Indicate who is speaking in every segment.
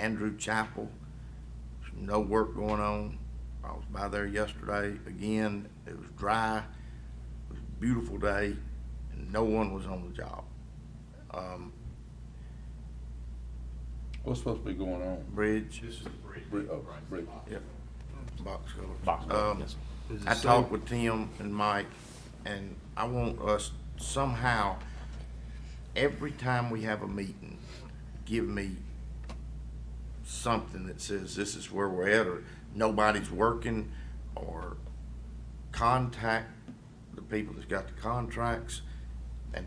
Speaker 1: Andrew Chapel. No work going on. I was by there yesterday again. It was dry. It was a beautiful day, and no one was on the job. Um,
Speaker 2: What's supposed to be going on?
Speaker 1: bridge,
Speaker 3: This is the bridge.
Speaker 2: Bri- oh,
Speaker 3: Right.
Speaker 2: bridge.
Speaker 1: yep, box culvert.
Speaker 4: Box culvert,
Speaker 1: Um,
Speaker 4: yes, sir.
Speaker 1: I talked with Tim and Mike, and I want us somehow, every time we have a meeting, give me something that says this is where we're at, or nobody's working, or contact the people that's got the contracts and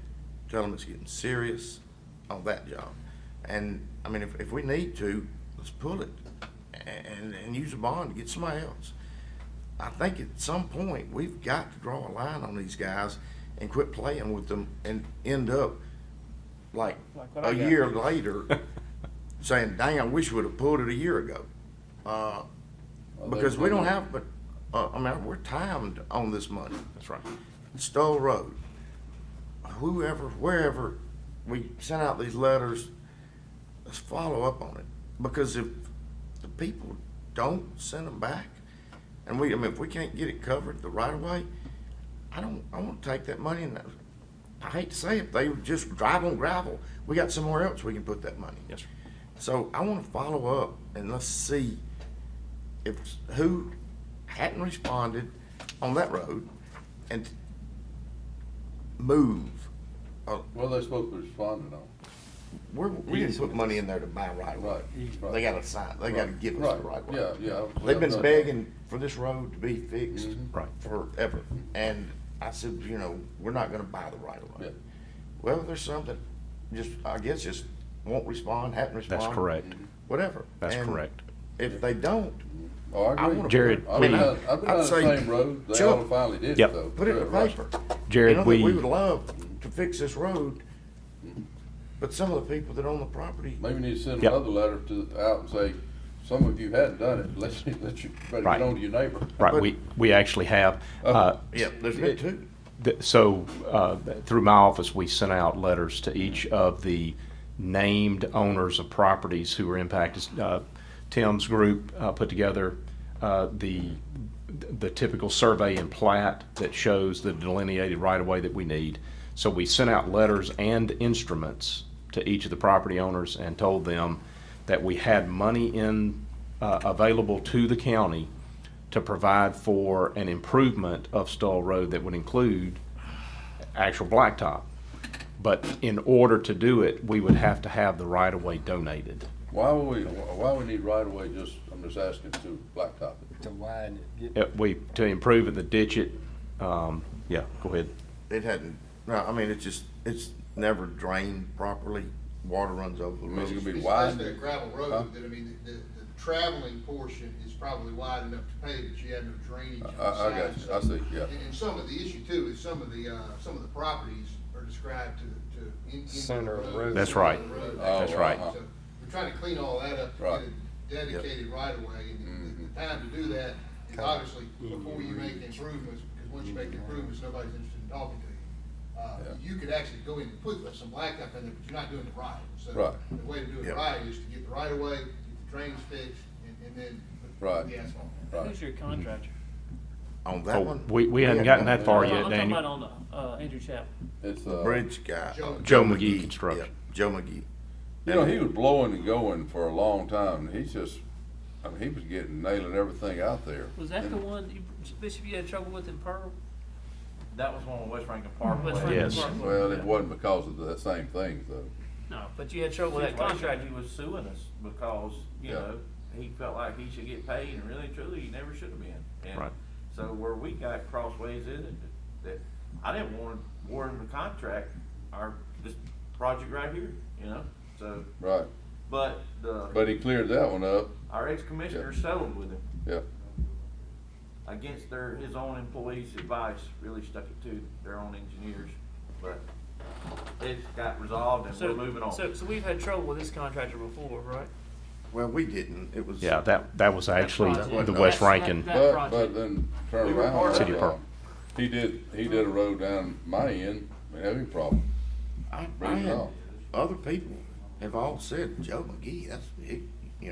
Speaker 1: tell them it's getting serious on that job. And, I mean, if, if we need to, let's pull it and, and use a bond to get somebody else. I think at some point, we've got to draw a line on these guys and quit playing with them and end up like
Speaker 4: Like what I
Speaker 1: a
Speaker 4: got.
Speaker 1: year later saying, dang, I wish we'd have pulled it a year ago. Uh,
Speaker 2: Are they
Speaker 1: because we don't
Speaker 2: doing-
Speaker 1: have, but, uh, I mean, we're timed on this money.
Speaker 4: That's right.
Speaker 1: Stowe Road, whoever, wherever, we sent out these letters, let's follow up on it. Because if the people don't send them back, and we, I mean, if we can't get it covered the right of way, I don't, I want to take that money and, I hate to say it, they would just drive on gravel. We got somewhere else we can put that money.
Speaker 4: Yes, sir.
Speaker 1: So I want to follow up and let's see if who hadn't responded on that road and move. Uh,
Speaker 2: What are they supposed to be responding on?
Speaker 1: we're, we didn't put money in there to buy right away.
Speaker 2: Right, right.
Speaker 1: They got to sign. They got to
Speaker 2: Right,
Speaker 1: give us
Speaker 2: right,
Speaker 1: the right way.
Speaker 2: Yeah, yeah.
Speaker 1: They've
Speaker 2: I've
Speaker 1: been
Speaker 2: done that.
Speaker 1: begging for this road to be fixed
Speaker 2: Mhm.
Speaker 4: Right.
Speaker 1: forever, and I said, you know, we're not going to buy the right of
Speaker 2: Yeah.
Speaker 1: way. Well, there's some that just I guess just won't respond, haven't responded.
Speaker 4: That's correct.
Speaker 1: Whatever.
Speaker 4: That's
Speaker 1: And
Speaker 4: correct.
Speaker 1: If they don't,
Speaker 2: Oh, I
Speaker 1: I wanna-
Speaker 2: agree.
Speaker 4: Jared,
Speaker 2: I've
Speaker 4: we-
Speaker 2: been down, I've been
Speaker 1: I'd
Speaker 2: down the
Speaker 1: say-
Speaker 2: same road. They
Speaker 1: Chuck,
Speaker 2: ought to finally did
Speaker 4: Yep.
Speaker 2: it though.
Speaker 1: put it in the
Speaker 2: Yeah, right.
Speaker 1: paper.
Speaker 4: Jared,
Speaker 1: You know, that
Speaker 4: we-
Speaker 1: We would love to fix this road, but some of the people that own the property,
Speaker 2: Maybe we need to send
Speaker 4: Yep.
Speaker 2: another letter to, out and say, some of you hadn't done it. Let's, let you, better
Speaker 4: Right.
Speaker 2: get on to your neighbor.
Speaker 4: Right,
Speaker 1: But- Oh.
Speaker 4: we, we actually have, uh,
Speaker 1: yeah, there's been two.
Speaker 4: th- so, uh, through my office, we sent out letters to each of the named owners of properties who were impacted. Uh, Tim's group, uh, put together, uh, the, the typical survey and plat that shows the delineated right-of-way that we need. So we sent out letters and instruments to each of the property owners and told them that we had money in, uh, available to the county to provide for an improvement of Stoll Road that would include actual blacktop. But in order to do it, we would have to have the right-of-way donated.
Speaker 2: Why would we, why we need right away? just, I'm just asking to blacktop it.
Speaker 5: to widen it.
Speaker 4: Uh, We, to improve it, to ditch it, um, yeah, go ahead.
Speaker 1: It hadn't, no, I mean, it's just, it's never drained properly. Water runs over the
Speaker 2: I mean,
Speaker 4: Mm-hmm.
Speaker 2: it's gonna
Speaker 1: road.
Speaker 2: be
Speaker 6: It's
Speaker 2: wide.
Speaker 6: basically a gravel
Speaker 2: Huh?
Speaker 6: road, but I mean, the, the traveling portion is probably wide enough to pave it, you have no drainage
Speaker 2: I,
Speaker 6: on the
Speaker 2: I
Speaker 6: sides.
Speaker 2: got you. I see, yeah.
Speaker 6: And, and some of the issue too is some of the, uh, some of the properties are described to, to. in- in the
Speaker 5: Center of road.
Speaker 4: That's
Speaker 6: center
Speaker 4: right.
Speaker 6: of the road.
Speaker 2: Oh,
Speaker 4: That's right.
Speaker 2: uh-huh.
Speaker 6: So We're trying to clean all that up, to
Speaker 2: Right. Mm-hmm.
Speaker 6: get a dedicated right of way, and the- the time to do that is obviously before you make improvements, because once you make
Speaker 5: Mm-hmm.
Speaker 6: improvements, nobody's interested in talking to you. Uh,
Speaker 2: Yeah.
Speaker 6: you could actually go in and put some blacktop in there, but you're not doing it right, so.
Speaker 2: Right.
Speaker 6: The way to do
Speaker 1: Yeah.
Speaker 6: it right is to get the right of way, get the drains fixed, and, and then. put
Speaker 2: Right.
Speaker 6: The asphalt.
Speaker 2: Right.
Speaker 7: Who's your contractor?
Speaker 1: On that
Speaker 4: Oh,
Speaker 1: one.
Speaker 4: We, we hadn't
Speaker 1: had
Speaker 4: gotten
Speaker 1: none.
Speaker 4: that far
Speaker 7: I'm
Speaker 4: yet,
Speaker 7: talking about
Speaker 4: Daniel.
Speaker 7: on, uh, Andrew Chapel.
Speaker 2: It's,
Speaker 1: The
Speaker 2: uh,
Speaker 1: bridge guy.
Speaker 6: Joe-
Speaker 4: Joe McGee Construction.
Speaker 1: yeah, Joe McGee.
Speaker 2: You know, he was blowing and going for a long time. and He's just, I mean, he was getting, nailing everything out there.
Speaker 7: Was that the one, that you, Bishop, you had trouble with in Pearl?
Speaker 8: That was one of West Rankin Parkway.
Speaker 7: West Rankin
Speaker 4: Yes.
Speaker 7: Parkway?
Speaker 2: Well, it wasn't because of the same thing, though.
Speaker 7: No, but you had trouble
Speaker 8: Well,
Speaker 7: with that
Speaker 8: that contract,
Speaker 7: contractor.
Speaker 8: he was suing us because, you
Speaker 2: Yeah.
Speaker 8: know, he felt like he should get paid and really truly, he never should have been. And
Speaker 4: Right.
Speaker 8: So where we got crossways in it, that, I didn't want, to warn the contract, our, this project right here, you know, so,
Speaker 2: Right.
Speaker 8: but the,
Speaker 2: But he cleared that one up.
Speaker 8: our ex-commissioner settled with him
Speaker 2: Yeah.
Speaker 8: against their, his own employees' advice, really stuck it to their own engineers, but it got resolved and
Speaker 7: So-
Speaker 8: we're moving on.
Speaker 7: So, so we've had trouble with this contractor before, right?
Speaker 1: Well, we didn't. It was.
Speaker 4: Yeah, that, that was actually
Speaker 7: project.
Speaker 4: the West
Speaker 7: That-
Speaker 4: Rankin.
Speaker 7: that-
Speaker 2: But,
Speaker 7: project.
Speaker 2: but then turn
Speaker 8: We were
Speaker 2: around.
Speaker 8: part of
Speaker 4: City
Speaker 2: um,
Speaker 4: Park.
Speaker 2: He did, he did a road down my end, and every problem.
Speaker 1: I, I
Speaker 2: Bring it
Speaker 1: had,
Speaker 2: on.
Speaker 1: other people have all said, Joe McGee, that's, he,